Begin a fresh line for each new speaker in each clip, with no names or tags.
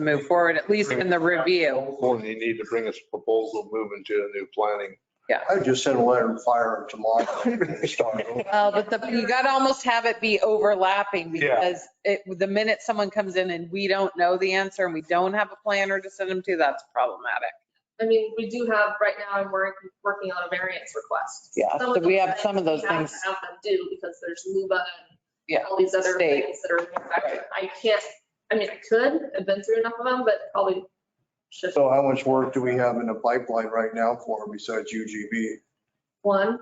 move forward, at least in the review.
Well, they need to bring us a proposal moving to a new planning.
I just sent a letter to fire him tomorrow. Start over.
Well, Uh, but the, you gotta almost have it be overlapping
Yeah.
because it, the minute someone comes in and we don't know the answer and we don't have a planner to send them to, that's problematic.
I mean, we do have, right now, I'm work- working on a variance request.
Yeah,
Some
so
of
we
those
have some of
things
those
we have
things.
to Have them do because there's LUBA
Yeah,
and all these other
state.
things that are. in effect. I can't, I mean, I could, I've been through enough of them, but probably should
So how much work do we have in the pipeline right now for him besides UGB?
one.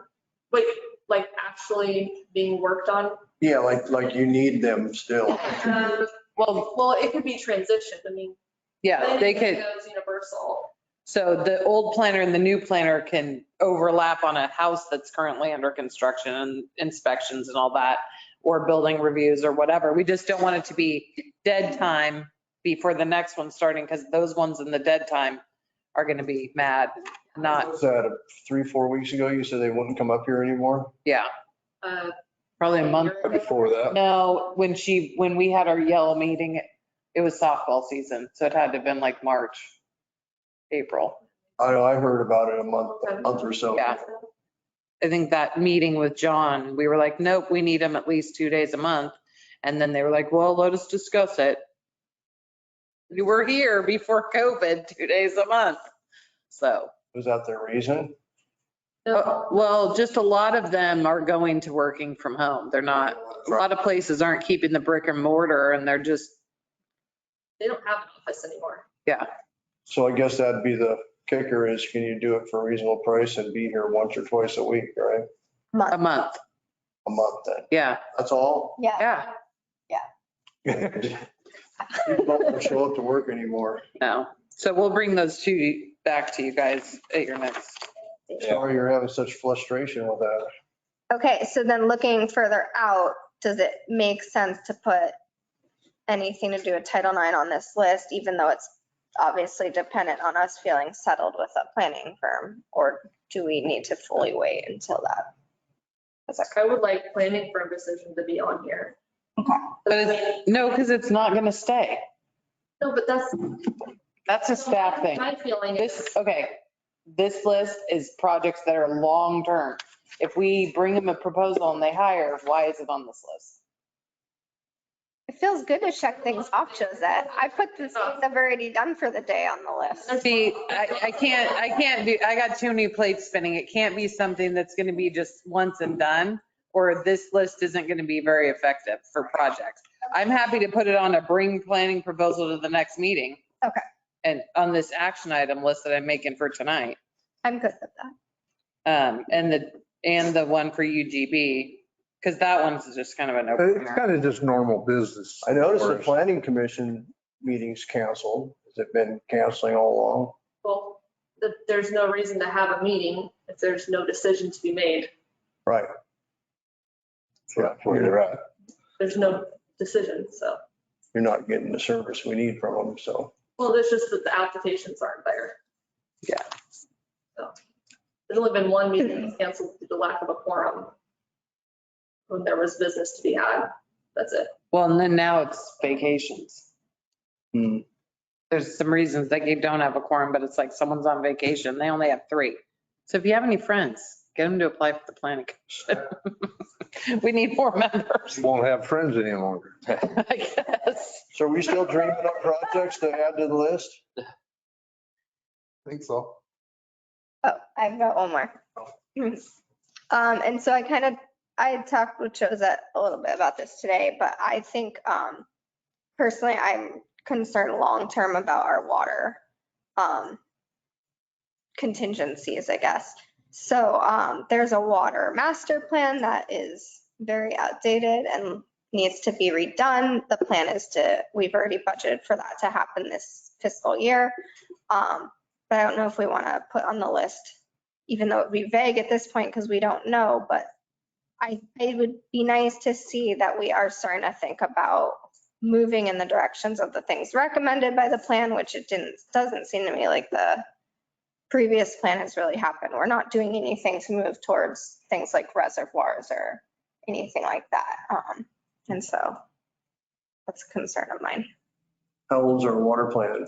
Wait, like actually being worked on.
Yeah, like, like you need them still.
Um,
Well,
Well, it could be transitioned. I mean.
yeah, they
planning
could,
goes Universal.
so the old planner and the new planner can overlap on a house that's currently under construction and inspections and all that, or building reviews or whatever. We just don't want it to be dead time before the next one starting because those ones in the dead time are gonna be mad, not,
Was that three, four weeks ago? You said they wouldn't come up here anymore?
yeah,
uh,
probably a month.
year ago.
Before that,
No, when she, when we had our yellow meeting, it was softball season, so it had to have been like March, April.
I know, I heard about it a month, a month or so.
Yeah. I think that meeting with John, we were like, nope, we need them at least two days a month. And then they were like, well, let us discuss it. We were here before COVID, two days a month. So,
Was that their reason?
uh,
No,
well, just a lot of them are going to working from home. They're not, a lot of places aren't keeping the brick and mortar and they're just,
They don't have an office anymore.
So I guess that'd be the kicker is can you do it for a reasonable price and be here once or twice a week, right?
a month.
A month then.
Yeah,
That's all?
Yeah,
yeah,
People don't wanna show up to work anymore.
no. So we'll bring those two back to you guys at your next.
Sorry you're having such frustration with that.
okay, so then looking further out, does it make sense to put anything to do with Title IX on this list, even though it's obviously dependent on us feeling settled with a planning firm? Or do we need to fully wait until that?
It's like, I would like planning for a decision to be on here.
But it's, no, because it's not going to stay.
No, but that's.
That's a staff thing.
My feeling
This,
is,
okay, this list is projects that are long-term. If we bring them a proposal and they hire, why is it on this list?
It feels good to check things off, Josette. I put the things
Oh.
I've already done for the day on the list.
See, I, I can't, I can't do, I got too many plates spinning. It can't be something that's going to be just once and done, or this list isn't going to be very effective for projects. I'm happy to put it on a bring planning proposal to the next meeting.
Okay.
And on this action item list that I'm making for tonight.
I'm good with that.
Um, and the, and the one for UGB, because that one's just kind of an
It's
opener.
kind of just normal business.
I noticed the planning commission meetings canceled. Has it been canceling all along?
well, that there's no reason to have a meeting if there's no decision to be made.
Right. Yeah, you're right.
There's no decision, so.
You're not getting the service we need from them, so.
Well, there's just that the applications aren't there.
Yeah.
So, There's only been one meeting that's canceled due to lack of a quorum. When there was business to be had, that's it.
Well, and then now it's vacations.
Hmm.
There's some reasons that you don't have a quorum, but it's like someone's on vacation. They only have three. So if you have any friends, get them to apply for the planning commission. We need more members,
you won't have friends any longer.
I guess.
So are we still dreaming up projects to add to the list?
Think so.
Oh, I've got one more. Um, and so I kind of, I had talked with Josette a little bit about this today, but I think, um, personally, I'm concerned long-term about our water, um, contingencies, I guess. So, um, there's a water master plan that is very outdated and needs to be redone. The plan is to, we've already budgeted for that to happen this fiscal year. Um, but I don't know if we want to put on the list even though it'd be vague at this point because we don't know, but I, it would be nice to see that we are starting to think about moving in the directions of the things recommended by the plan, which it didn't, doesn't seem to me like the previous plan has really happened. We're not doing anything to move towards things like reservoirs or anything like that. Um, and so that's a concern of mine.
How old's our water plant?